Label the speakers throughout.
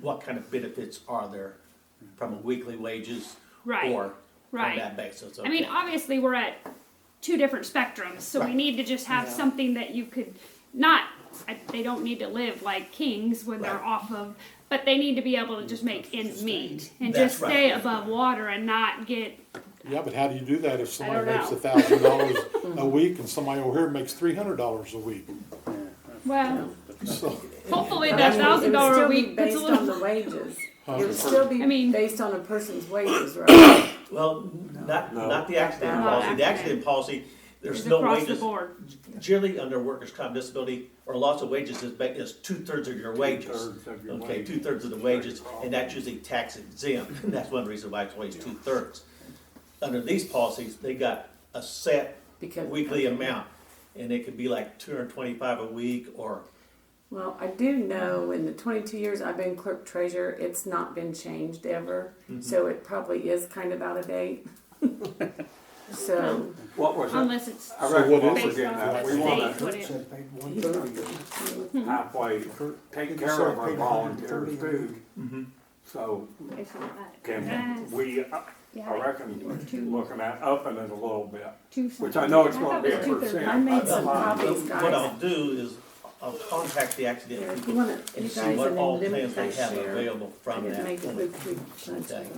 Speaker 1: what kind of benefits are there from weekly wages?
Speaker 2: Right,
Speaker 1: Or on
Speaker 2: right.
Speaker 1: that basis,
Speaker 2: I mean,
Speaker 1: okay,
Speaker 2: obviously, we're at two different spectrums, so we
Speaker 1: Right.
Speaker 2: need to just have something that you could not. I, they don't need to live like kings when they're
Speaker 1: Right.
Speaker 2: off of, but they need to be able to just make ends meet and
Speaker 1: That's
Speaker 2: just stay
Speaker 1: right.
Speaker 2: above water and not get.
Speaker 3: Yeah, but how do you do that if somebody
Speaker 2: don't
Speaker 3: makes
Speaker 2: know.
Speaker 3: a thousand dollars a week and somebody over here makes three hundred dollars a week?
Speaker 2: Well,
Speaker 3: So,
Speaker 2: hopefully
Speaker 4: It would
Speaker 2: that
Speaker 4: still
Speaker 2: thousand dollar a
Speaker 4: be
Speaker 2: week puts a
Speaker 4: Based on
Speaker 2: little.
Speaker 4: the wages.
Speaker 3: Huh?
Speaker 4: It would still
Speaker 2: I mean-
Speaker 4: be based on a person's wages, right?
Speaker 1: well, not,
Speaker 5: No.
Speaker 1: not the accident
Speaker 2: Not
Speaker 1: policy, the
Speaker 2: accident.
Speaker 1: accident policy, there's
Speaker 2: It's
Speaker 1: no
Speaker 2: across the
Speaker 1: wages.
Speaker 2: board.
Speaker 1: Generally, under workers' comp disability, or loss of wages is, ba- is two-thirds of your wages.
Speaker 5: Two-thirds of your
Speaker 1: Okay,
Speaker 5: wages.
Speaker 1: two-thirds of the wages, and that's usually tax exempt, and that's one reason why it's always two-thirds. Under these policies, they got a set
Speaker 4: Because-
Speaker 1: weekly amount, and it could be like two hundred and twenty-five a week, or,
Speaker 4: Well, I do know in the twenty-two years I've been clerk treasurer, it's not been changed ever,
Speaker 1: Mm-hmm.
Speaker 4: so it probably is kind of out of date. So,
Speaker 5: What was it?
Speaker 2: Unless it's
Speaker 5: I
Speaker 3: So
Speaker 5: reckon
Speaker 3: what
Speaker 5: what
Speaker 3: is
Speaker 5: we're
Speaker 2: it?
Speaker 5: getting at, we
Speaker 2: Based on
Speaker 5: wanna
Speaker 2: the state.
Speaker 6: Said paid one thirty.
Speaker 5: halfway take care of our volunteers too.
Speaker 3: Mm-hmm.
Speaker 5: So
Speaker 2: it's not that.
Speaker 5: can
Speaker 2: Yes.
Speaker 5: we, I
Speaker 2: Yeah,
Speaker 5: I
Speaker 2: like
Speaker 5: reckon, looking at upping it a little bit.
Speaker 2: two
Speaker 5: Which
Speaker 2: something.
Speaker 5: I know it's
Speaker 2: thought
Speaker 5: gonna be
Speaker 2: it
Speaker 5: a
Speaker 2: was two-thirds.
Speaker 4: I
Speaker 5: percent.
Speaker 4: made some copies,
Speaker 1: what I'll
Speaker 4: guys.
Speaker 1: do is, I'll contact the
Speaker 4: Here,
Speaker 1: accident
Speaker 4: if you
Speaker 1: people
Speaker 4: want it, you
Speaker 1: and
Speaker 4: guys,
Speaker 1: see
Speaker 4: and
Speaker 1: what
Speaker 4: then
Speaker 1: all
Speaker 4: limit
Speaker 1: plans they
Speaker 4: that
Speaker 1: have
Speaker 4: share.
Speaker 1: available
Speaker 4: I
Speaker 1: from
Speaker 4: didn't
Speaker 1: that.
Speaker 4: make it look too much.
Speaker 1: Okay.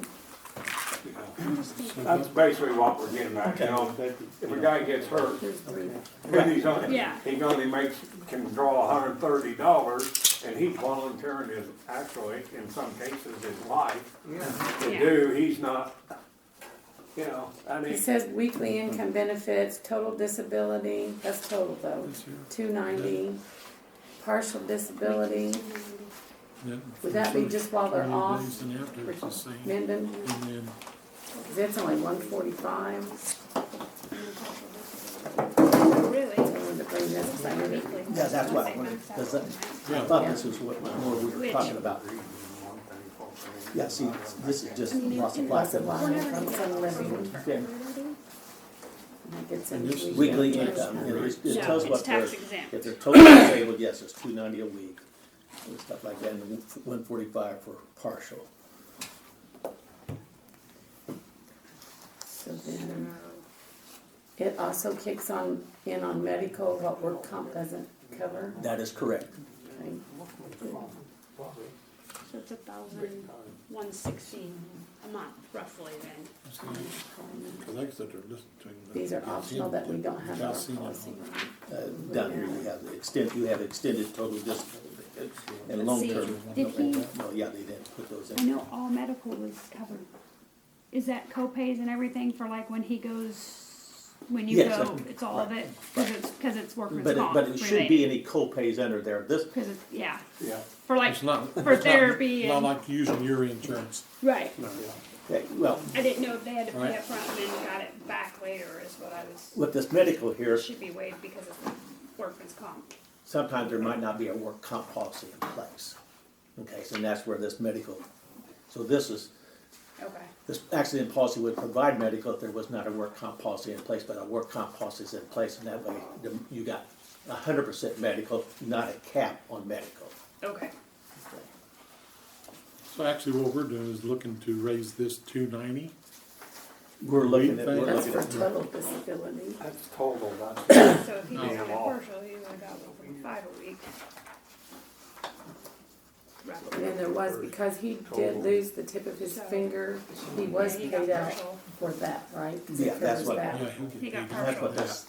Speaker 5: That's basically what we're getting at, you know, if a guy gets hurt,
Speaker 4: Here's three.
Speaker 5: and he's only,
Speaker 2: Yeah.
Speaker 5: he only makes, can draw hundred and thirty dollars, and he's volunteering his, actually, in some cases, his life to
Speaker 2: Yeah.
Speaker 5: do, he's not, you know, I mean.
Speaker 4: It says weekly income benefits, total disability, that's total though, two ninety, partial disability, would that be just while they're off? Mendon, that's only one forty-five,
Speaker 2: Really?
Speaker 4: I wanted to bring this, 'cause I knew it-
Speaker 1: Yeah, that's what I wanted, because that, I thought this was what, what we were talking about. Yeah, see, this is just loss of
Speaker 4: lots of
Speaker 1: life,
Speaker 4: line from some living,
Speaker 1: Okay,
Speaker 4: that gets into.
Speaker 1: weekly income, and it it
Speaker 2: No,
Speaker 1: tells
Speaker 2: it's
Speaker 1: what they're,
Speaker 2: tax
Speaker 1: if
Speaker 2: exempt.
Speaker 1: they're totally disabled, yes, it's two ninety a week. And stuff like that, and one forty-five for partial.
Speaker 4: So then, It also kicks on, in on medical, what work comp doesn't cover,
Speaker 1: That is correct.
Speaker 4: okay?
Speaker 2: So it's a thousand one sixteen a month roughly then.
Speaker 4: These are optional that we don't have in our policy.
Speaker 1: Uh, Down here, you have the extent, you have extended total disability and
Speaker 2: Let's see,
Speaker 1: long-term.
Speaker 2: did he-
Speaker 1: No, yeah, they didn't put those
Speaker 2: I
Speaker 1: in.
Speaker 2: know all medical was covered. Is that co-pays and everything for like when he goes, when you
Speaker 1: Yes,
Speaker 2: go,
Speaker 1: I-
Speaker 2: it's all of it? Cause it's, cause it's workers'
Speaker 1: But it,
Speaker 2: comp
Speaker 1: but it should be
Speaker 2: related.
Speaker 1: any co-pays under there. This,
Speaker 2: Cause it's, yeah,
Speaker 5: Yeah.
Speaker 2: for like,
Speaker 3: It's not.
Speaker 2: for
Speaker 3: it's not-
Speaker 2: therapy
Speaker 3: Not
Speaker 2: and,
Speaker 3: like using your insurance.
Speaker 2: right.
Speaker 1: yeah, well,
Speaker 2: I didn't know if they had to pay
Speaker 3: Right.
Speaker 2: upfront and then got it back later is what I was,
Speaker 1: with this medical here,
Speaker 2: should be waived because it's workers' comp.
Speaker 1: sometimes there might not be a work comp policy in place. Okay, so that's where this medical, so this is,
Speaker 2: Okay,
Speaker 1: this accident policy would provide medical if there was not a work comp policy in place, but a work comp policy is in place, and that way the- you got hundred percent medical, not a cap on medical.
Speaker 2: okay.
Speaker 3: So actually what we're doing is looking to raise this two ninety.
Speaker 1: We're looking at, we're
Speaker 4: That's
Speaker 1: looking
Speaker 4: for
Speaker 1: at,
Speaker 4: total disability.
Speaker 5: That's total, that's,
Speaker 2: So if he
Speaker 3: No.
Speaker 2: just got a
Speaker 5: Well-
Speaker 2: partial, he would've got one point five a week.
Speaker 4: And
Speaker 2: Roughly.
Speaker 4: then there was, because he did lose the tip of his finger, he was
Speaker 2: Yeah, he got
Speaker 4: paid out
Speaker 2: partial.
Speaker 4: for that, right? 'Cause
Speaker 1: Yeah,
Speaker 4: it
Speaker 1: that's
Speaker 4: covers
Speaker 1: what-
Speaker 4: that
Speaker 3: Yeah, he'll get
Speaker 2: He got
Speaker 3: paid.
Speaker 1: that's what this,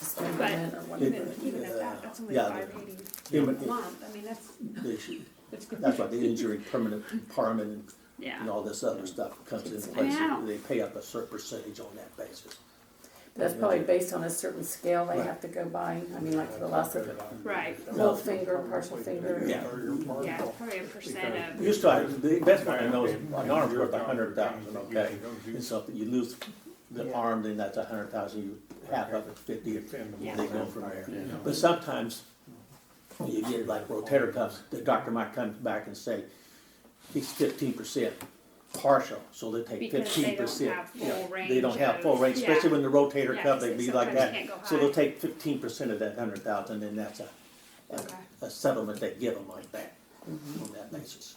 Speaker 4: dismemberment or whatever.
Speaker 2: Even, even at that, that's only
Speaker 1: Yeah,
Speaker 2: five eighty a
Speaker 1: even-
Speaker 2: month, I mean, that's,
Speaker 1: the issue-
Speaker 2: that's
Speaker 1: that's
Speaker 2: good.
Speaker 1: why the injury, permanent impairment, and and
Speaker 2: Yeah,
Speaker 1: all this other stuff comes in
Speaker 2: I mean,
Speaker 1: place,
Speaker 2: I don't-
Speaker 1: they pay up a certain percentage on that basis.
Speaker 4: That's probably based on a certain scale they have to go by, I mean, like for the loss of a
Speaker 2: right,
Speaker 4: whole finger, partial finger.
Speaker 1: Yeah.
Speaker 2: yeah, it's probably a percent of,
Speaker 1: Used to, have- the best one I know is an arm's worth a hundred thousand, okay? And so if you lose the arm, then that's a hundred thousand, you half of it's fifty, and
Speaker 2: Yeah.
Speaker 1: they go from there. But sometimes, when you get like rotator cuffs, the doctor might come back and say, he's fifteen percent partial, so they take
Speaker 2: Because they
Speaker 1: fifteen
Speaker 2: don't
Speaker 1: percent.
Speaker 2: have full range.
Speaker 1: They don't have full
Speaker 2: of-
Speaker 1: range,
Speaker 2: yeah.
Speaker 1: especially when the rotator
Speaker 2: Yeah,
Speaker 1: cuff, they
Speaker 2: 'cause
Speaker 1: be
Speaker 2: it
Speaker 1: like
Speaker 2: sometimes can't
Speaker 1: that.
Speaker 2: go
Speaker 1: So they'll
Speaker 2: high.
Speaker 1: take fifteen percent of that hundred thousand, and that's a, a-
Speaker 2: Okay. Mm-hmm.
Speaker 1: a settlement they give them like that, on that basis.